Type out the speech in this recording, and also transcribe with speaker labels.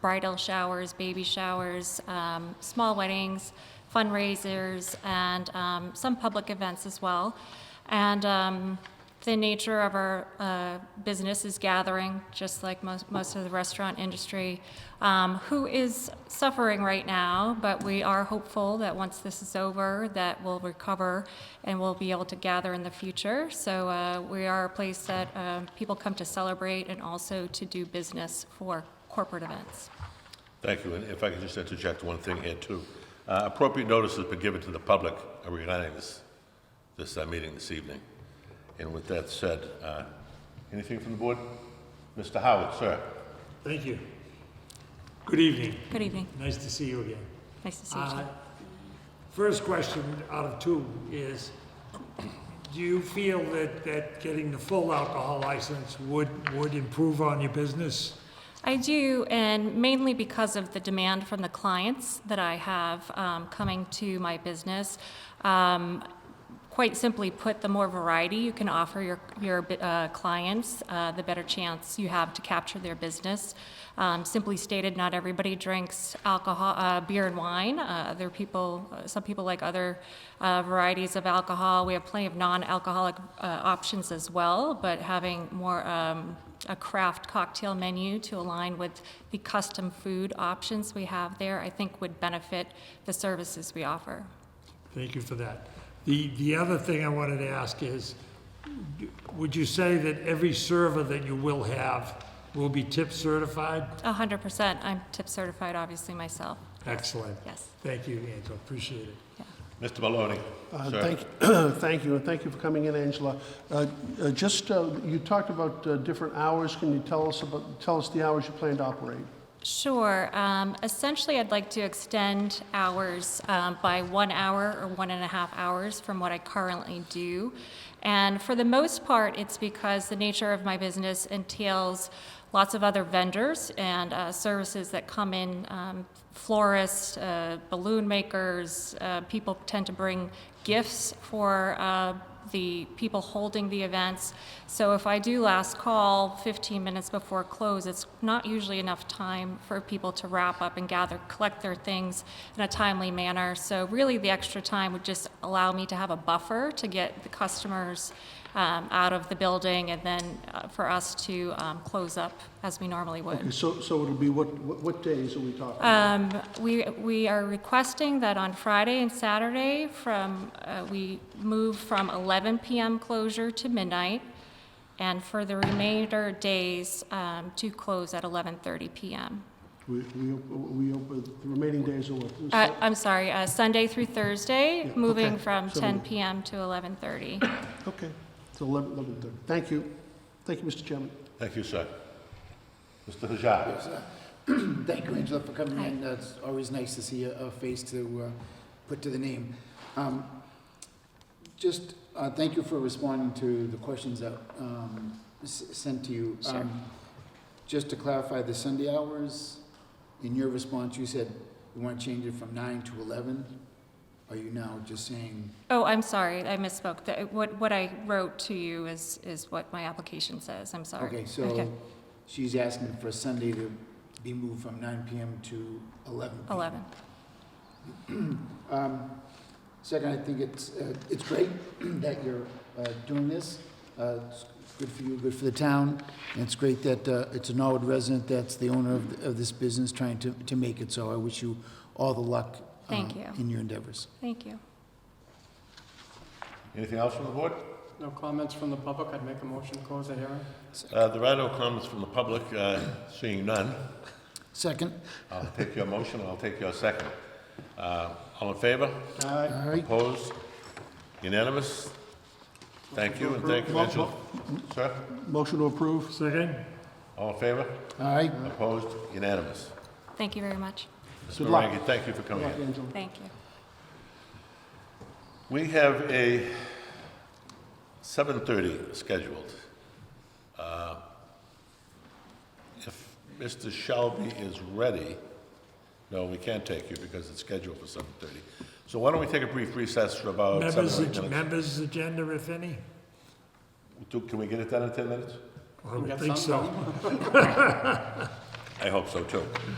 Speaker 1: bridal showers, baby showers, um, small weddings, fundraisers, and um, some public events as well. And um, the nature of our uh, business is gathering, just like most, most of the restaurant industry, um, who is suffering right now, but we are hopeful that once this is over, that we'll recover and we'll be able to gather in the future. So uh, we are a place that uh, people come to celebrate and also to do business for corporate events.
Speaker 2: Thank you, and if I could just interject one thing here, too. Uh, Appropriate notice has been given to the public regarding this, this uh, meeting this evening. And with that said, uh, anything from the board? Mr. Howard, sir?
Speaker 3: Thank you. Good evening.
Speaker 1: Good evening.
Speaker 3: Nice to see you again.
Speaker 1: Nice to see you.
Speaker 3: Uh,
Speaker 1: Jim.
Speaker 3: First question out of two is, do you feel that, that getting the full alcohol license would, would improve on your business?
Speaker 1: I do, and mainly because of the demand from the clients that I have um, coming to my business. Um, quite simply put, the more variety you can offer your, your uh, clients, uh, the better chance you have to capture their business. Um, simply stated, not everybody drinks alcohol, uh, beer and wine. Uh, other people, uh, some people like other uh, varieties of alcohol. We have plenty of non-alcoholic uh, options as well, but having more um, a craft cocktail menu to align with the custom food options we have there, I think would benefit the services we offer.
Speaker 3: Thank you for that. The, the other thing I wanted to ask is, would you say that every server that you will have will be tip certified?
Speaker 1: A hundred percent. I'm tip certified, obviously, myself.
Speaker 3: Excellent.
Speaker 1: Yes.
Speaker 3: Thank you, Angela. Appreciate it.
Speaker 2: Mr. Maloney?
Speaker 4: Uh,
Speaker 2: sir?
Speaker 4: Thank, thank you, and thank you for coming in, Angela. Uh, uh, Just, uh, you talked about uh, different hours, can you tell us about, tell us the hours you plan to operate?
Speaker 1: Sure. Um, essentially, I'd like to extend hours um, by one hour or one and a half hours from what I currently do. And for the most part, it's because the nature of my business entails lots of other vendors and uh, services that come in um, florists, uh, balloon makers. Uh, people tend to bring gifts for. Uh, the people holding the events. So if I do last call 15 minutes before close, it's not usually enough time for people to wrap up and gather, collect their things in a timely manner. So really, the extra time would just allow me to have a buffer to get the customers um, out of the building and then uh, for us to um, close up as we normally would.
Speaker 4: Okay, So, so it'll be, what, what what days are we talking?
Speaker 1: Um, We, we are requesting that on Friday and Saturday from, uh, we move from 11 PM closure to midnight, and for the remainder days, um, to close at 11:30 PM.
Speaker 4: We, we, op- we, open- the remaining days are what?
Speaker 1: Uh, I'm sorry, uh, Sunday through Thursday,
Speaker 4: Yeah,
Speaker 1: moving
Speaker 4: okay.
Speaker 1: from
Speaker 4: So-
Speaker 1: 10 PM to 11:30.
Speaker 4: Okay, it's 11, 11:30. Thank you. Thank you, Mr. Chairman.
Speaker 2: Thank you, sir. Mr. Hajar?
Speaker 5: Thank you, Angela, for coming in. Uh, It's always nice to see a a face to uh, put to the name. Um, Just uh, thank you for responding to the questions that um, s- sent to you.
Speaker 1: Sure.
Speaker 5: Um, Just to clarify, the Sunday hours, in your response, you said you want to change it from nine to eleven. Are you now just saying,
Speaker 1: Oh, I'm sorry, I misspoke. The- What, what I wrote to you is, is what my application says, I'm sorry.
Speaker 5: okay, so she's asking for Sunday to be moved from nine PM to eleven? PM.
Speaker 1: 11.
Speaker 5: Um, Second, I think it's, uh, it's great that you're uh, doing this. Uh, It's good for you, good for the town, and it's great that uh, it's a Norwood resident that's the owner of th- of this business trying to, to make it, so I wish you all the luck. uh,
Speaker 1: Thank you.
Speaker 5: In your endeavors.
Speaker 1: Thank you.
Speaker 2: Anything else from the board?
Speaker 6: No comments from the public, I'd make a motion to close the hearing.
Speaker 2: Uh, There are no comments from the public, uh, seeing none.
Speaker 5: Second,
Speaker 2: I'll take your motion, I'll take your second. Uh, All in favor?
Speaker 5: all right,
Speaker 2: Opposed? Unanimous? Thank you, and thank you, Angela. Sir,
Speaker 4: Motion to approve?
Speaker 3: Second?
Speaker 2: all in favor?
Speaker 5: all right,
Speaker 2: Opposed? Unanimous.
Speaker 1: Thank you very much.
Speaker 2: Mr.
Speaker 4: Good luck.
Speaker 2: Rangi, thank you for coming in.
Speaker 4: Angela.
Speaker 1: Thank you.
Speaker 2: We have a 7:30 scheduled. Uh, If Mr. Shelby is ready, no, we can't take you because it's scheduled for 7:30. So why don't we take a brief recess for about seven
Speaker 3: Members,
Speaker 2: or eight minutes?
Speaker 3: members' agenda, if any?
Speaker 2: Do- Can we get it done in 10 minutes?
Speaker 3: I would
Speaker 6: got
Speaker 3: think
Speaker 6: some,
Speaker 3: so.
Speaker 2: I hope so, too.